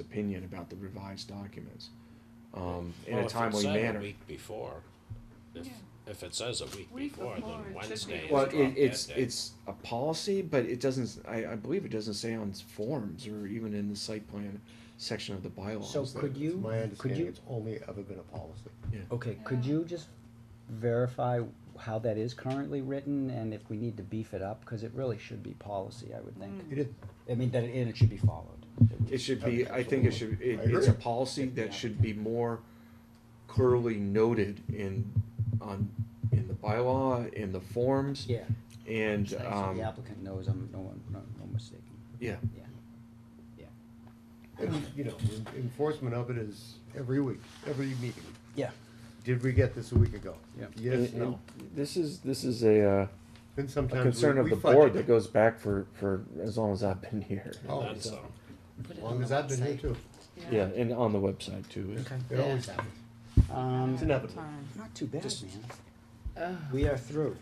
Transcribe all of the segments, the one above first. opinion about the revised documents um, in Well, a if it timely said manner. Week before, if, Yeah. if it says a week Week before, before, it should then be Wednesday is Well, drop Let's it, dead it's day. it's a policy, but it doesn't. I, I believe it doesn't say on forms or even in the site plan section of the bylaws. So that- could you, My could understanding, you, it's only ever been a policy. yeah. okay, could Yeah. you just verify how that is currently written and if we need to beef it up? Cause it really should be policy, I would Mm. think. It is, I mean, that, and it should be followed. It should be. I think it should. It, I it's agree. a policy that should be more clearly noted in on in the bylaw in the forms Yeah. and So um, the applicant knows I'm, no, one- no, no mistaken, yeah. yeah, yeah. it's, you know, en- enforcement of it is every week, every meeting. Yeah. Did we get this a week ago? Yep. Yes, And- no. and This is, this is a, uh, And a sometimes we, concern of we the fudge board it. that goes back for, for as long as I've been here. Oh, That's, it's- uh, Put as it long on as the I've been here website. too. Yeah, and on the website too. is- It always happens. Um, It's inevitable. Um, Uh, not too bad, Just- man. We are through.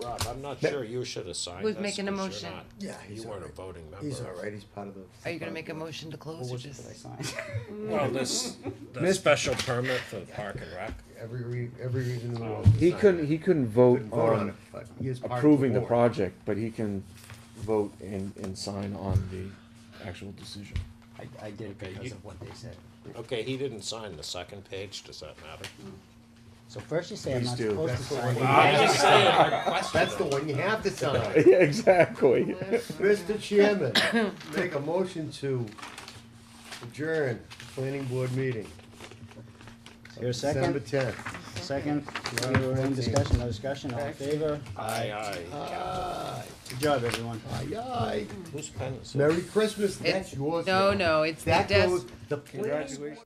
Rob, I'm not sure you should have signed We've this, 'cause making a you're motion. not, Yeah, you he's weren't a alright. voting member. He's all right, he's part of the. Are you gonna make a motion to close What or was it just? that I signed? Mm. Well, this, the special permit for the park and rec, Every, re- every reason in the Oh. world. He couldn't, he couldn't vote Couldn't vote on it, on but he is part of approving the board. project, but he can vote and, and sign on the actual decision. I, I did it Okay, because you- of what they said. okay, he didn't sign the second page, does that matter? So first you say I'm Please not do. supposed to That's sign. the one you it. have to sign. That's That's the one you have to sign. Yeah, exactly. Mr. Chairman, make a motion to adjourn the planning board meeting. Here, December second, tenth. second, Second. we're in discussion, no discussion, all in favor? Aye, aye, Uh, Aye, Good job, everyone. aye, aye. whose pen is it? Merry Christmas, that's It- yours. No, now. no, it's the That desk. goes, the planning